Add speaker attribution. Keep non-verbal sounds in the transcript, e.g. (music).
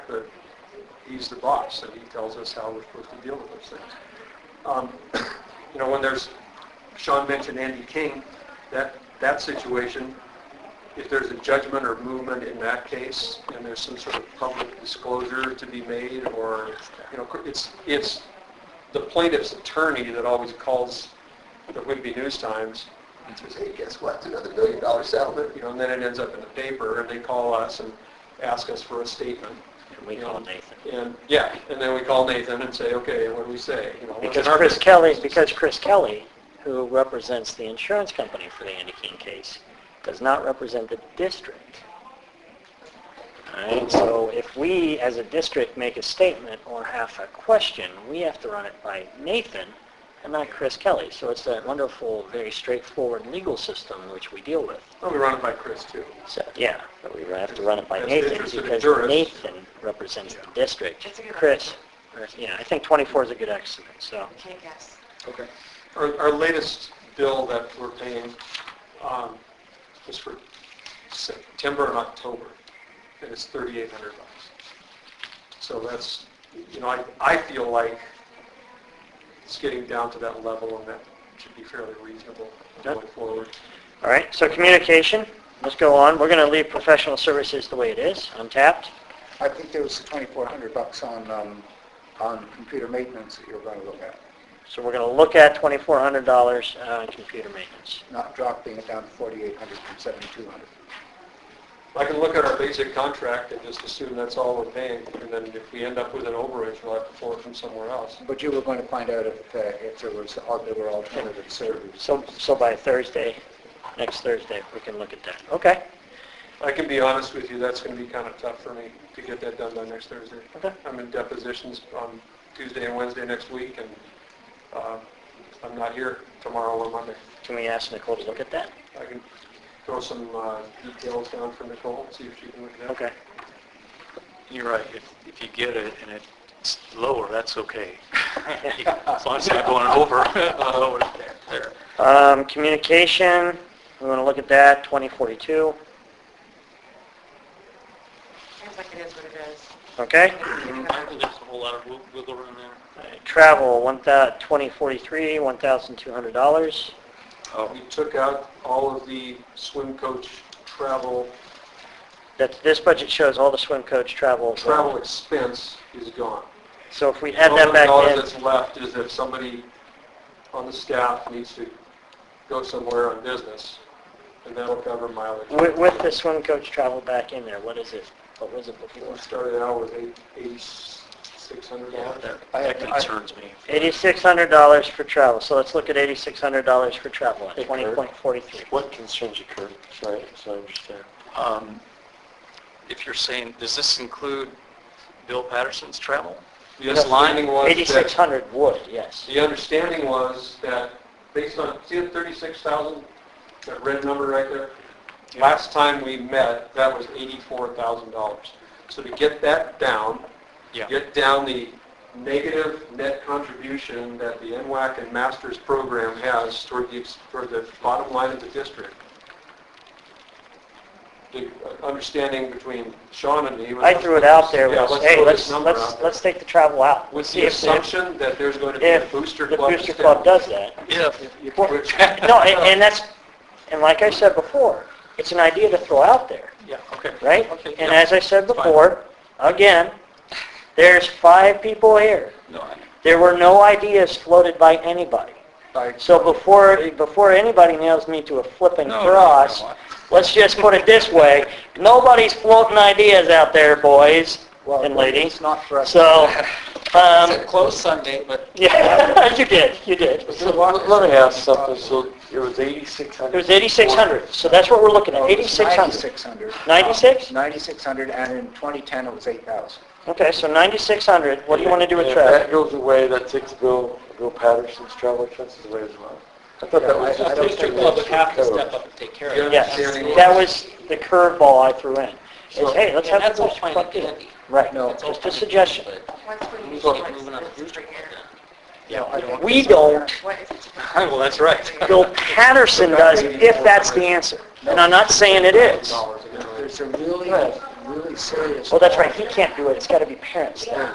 Speaker 1: that he's the boss and he tells us how we're supposed to deal with those things. Um, (coughs) you know, when there's, Sean mentioned Andy King, that, that situation, if there's a judgment or movement in that case, and there's some sort of public disclosure to be made, or, you know, it's, it's the plaintiff's attorney that always calls the Whitby News Times and says, hey, guess what, It's another million dollar settlement, you know, and then it ends up in the paper, and they call us and ask us for a statement.
Speaker 2: And we
Speaker 1: you
Speaker 2: call
Speaker 1: know,
Speaker 2: Nathan.
Speaker 1: And, yeah, and then we call Nathan and say, okay, what do we say? You know, what's
Speaker 2: Because
Speaker 1: our
Speaker 2: Chris
Speaker 1: business?"
Speaker 2: Kelly, because Chris Kelly, who represents the insurance company for the Andy King case, does not represent the district. Alright, so if we, as a district, make a statement or have a question, we have to run it by Nathan and not Chris Kelly. So it's that wonderful, very straightforward legal system which we deal with.
Speaker 1: Well, we run it by Chris too.
Speaker 2: So, yeah, but we have to run it by
Speaker 1: That's
Speaker 2: Nathan
Speaker 1: interested in
Speaker 2: because
Speaker 1: jurists.
Speaker 2: Nathan represents the district.
Speaker 3: That's a good
Speaker 2: Chris, yeah, I think 24 is a good estimate, so.
Speaker 3: Can't guess.
Speaker 1: Okay. Our, our latest bill that we're paying um, is for September and October, and it's $3,800. So that's, you know, I, I feel like it's getting down to that level, and that should be fairly reasonable
Speaker 2: Yep.
Speaker 1: going forward.
Speaker 2: All right, so communication, let's go on. We're going to leave professional services the way it is, untapped.
Speaker 4: I think there was the 2,400 bucks on, um, on computer maintenance that you were going to look at,
Speaker 2: So we're going to look at $2,400 on uh, computer maintenance.
Speaker 4: not dropping it down to 4,800 from 7,200.
Speaker 1: I can look at our basic contract and just assume that's all we're paying, and then if we end up with an overage, we'll have to pull it from somewhere else.
Speaker 4: But you were going to find out if, uh, if there was, al- there were alternative services.
Speaker 2: So, so by Thursday, next Thursday, we can look at that. Okay,
Speaker 1: I can be honest with you, that's going to be kind of tough for me to get that done by next Thursday.
Speaker 2: Okay.
Speaker 1: I'm in depositions on Tuesday and Wednesday next week, and uh, I'm not here tomorrow or Monday.
Speaker 2: can we ask Nicole to look at that?
Speaker 1: I can throw some uh, details down for Nicole, see if she can look at that.
Speaker 2: Okay,
Speaker 5: You're right, if, if you get it and it's lower, that's okay. As long as it's not going over, (laughs) lower, there, there.
Speaker 2: um, communication, we want to look at that, 2042,
Speaker 3: Seems like it is what it is.
Speaker 2: okay?
Speaker 5: I think there's a whole lot of wig- wiggle room there.
Speaker 2: All right, Travel, 1,000 2043, $1,200. Oh.
Speaker 1: We took out all of the swim coach travel,
Speaker 2: That's, this budget shows all the swim coach travel.
Speaker 1: travel expense is gone.
Speaker 2: So if we add that back
Speaker 1: The only dollar
Speaker 2: in.
Speaker 1: that's left is if somebody on the staff needs to go somewhere on business, and that'll cover mileage.
Speaker 2: With, with the swim coach travel back in there, what is it? What was it before?
Speaker 1: We started out with eight- $8,600.
Speaker 5: That-
Speaker 4: I-
Speaker 5: That
Speaker 4: I-
Speaker 5: concerns me.
Speaker 2: Eighty-six hundred dollars for travel, so let's look at eighty-six hundred dollars for travel at
Speaker 6: Hey,
Speaker 2: twenty
Speaker 6: Kurt.
Speaker 2: point forty-three.
Speaker 6: What concerns you, Kurt? Sorry, so I understand.
Speaker 5: Um, If you're saying, does this include Bill Patterson's travel?
Speaker 1: The understanding was
Speaker 2: Eighty-six
Speaker 1: that,
Speaker 2: hundred would, yes.
Speaker 1: the understanding was that based on, see the 36,000, that red number right there? Last time we met, that was $84,000. So to get that down,
Speaker 5: Yeah.
Speaker 1: get down the negative net contribution that the NWAC and Masters program has toward the, ex- toward the bottom line of the district. The uh, understanding between Sean and me was...
Speaker 2: I threw it out there,
Speaker 1: Yeah,
Speaker 2: was, hey,
Speaker 1: throw this
Speaker 2: let's,
Speaker 1: number out
Speaker 2: let's,
Speaker 1: there.
Speaker 2: let's take the travel out.
Speaker 1: With
Speaker 2: See
Speaker 1: the
Speaker 2: if the-
Speaker 1: assumption that there's going to be a
Speaker 2: If
Speaker 1: booster
Speaker 2: the
Speaker 1: club.
Speaker 2: booster club does that.
Speaker 5: Yeah. (laughs)
Speaker 1: Which-
Speaker 2: No, and, and that's, and like I said before, it's an idea to throw out there.
Speaker 5: Yeah, okay.
Speaker 2: right?
Speaker 5: Okay,
Speaker 2: And
Speaker 5: yeah.
Speaker 2: as I said
Speaker 5: It's fine.
Speaker 2: before, again, there's five people here.
Speaker 5: No, I-
Speaker 2: There were no ideas floated by anybody.
Speaker 4: By-
Speaker 2: So before, before anybody nails me to a flipping
Speaker 5: No, no,
Speaker 2: cross,
Speaker 5: no, I-
Speaker 2: let's just put it this way, nobody's floating ideas out there, boys
Speaker 4: Well,
Speaker 2: and ladies.
Speaker 4: It's not for us. (laughs)
Speaker 2: So, um,
Speaker 6: Close Sunday, but...
Speaker 2: yeah, (laughs) you did, you did.
Speaker 6: So let let me ask something, so it was 8,600?
Speaker 2: It was 8,600, so that's what we're looking
Speaker 4: No,
Speaker 2: at,
Speaker 4: Oh, it was
Speaker 2: 8,600. 96?
Speaker 4: 9,600. 9,600, Uh, and in 2010, it was 8,000.
Speaker 2: Okay, so 9,600, what do you want to do with
Speaker 6: And if
Speaker 2: travel?
Speaker 6: that goes away, that takes Bill, Bill Patterson's travel expenses away as well. I thought that
Speaker 4: Yeah, I- I
Speaker 6: was just...
Speaker 4: don't
Speaker 6: the
Speaker 4: think
Speaker 6: club would
Speaker 7: have to step up and take care of
Speaker 1: The
Speaker 7: it.
Speaker 2: Yes,
Speaker 1: understanding was-
Speaker 2: that was the curveball I threw in. Is,
Speaker 1: So-
Speaker 2: hey, let's
Speaker 7: And
Speaker 2: have
Speaker 7: that's
Speaker 2: the
Speaker 7: all
Speaker 2: booster
Speaker 7: fine and
Speaker 2: club in.
Speaker 7: dandy.
Speaker 2: Right,
Speaker 4: No.
Speaker 7: That's all
Speaker 2: just a
Speaker 7: fine.
Speaker 2: suggestion.
Speaker 7: But
Speaker 3: Once we
Speaker 7: Who's
Speaker 3: use
Speaker 7: gonna move another
Speaker 3: like this
Speaker 7: booster
Speaker 3: for here,
Speaker 2: We don't,
Speaker 3: what is it?
Speaker 5: (laughs) Well, that's right.
Speaker 2: Bill Patterson does, if that's the answer. And I'm not saying it is.
Speaker 1: Dollars again, right?
Speaker 4: There's a really, really serious.
Speaker 2: Well, that's right, he can't do it, it's got to be parents there.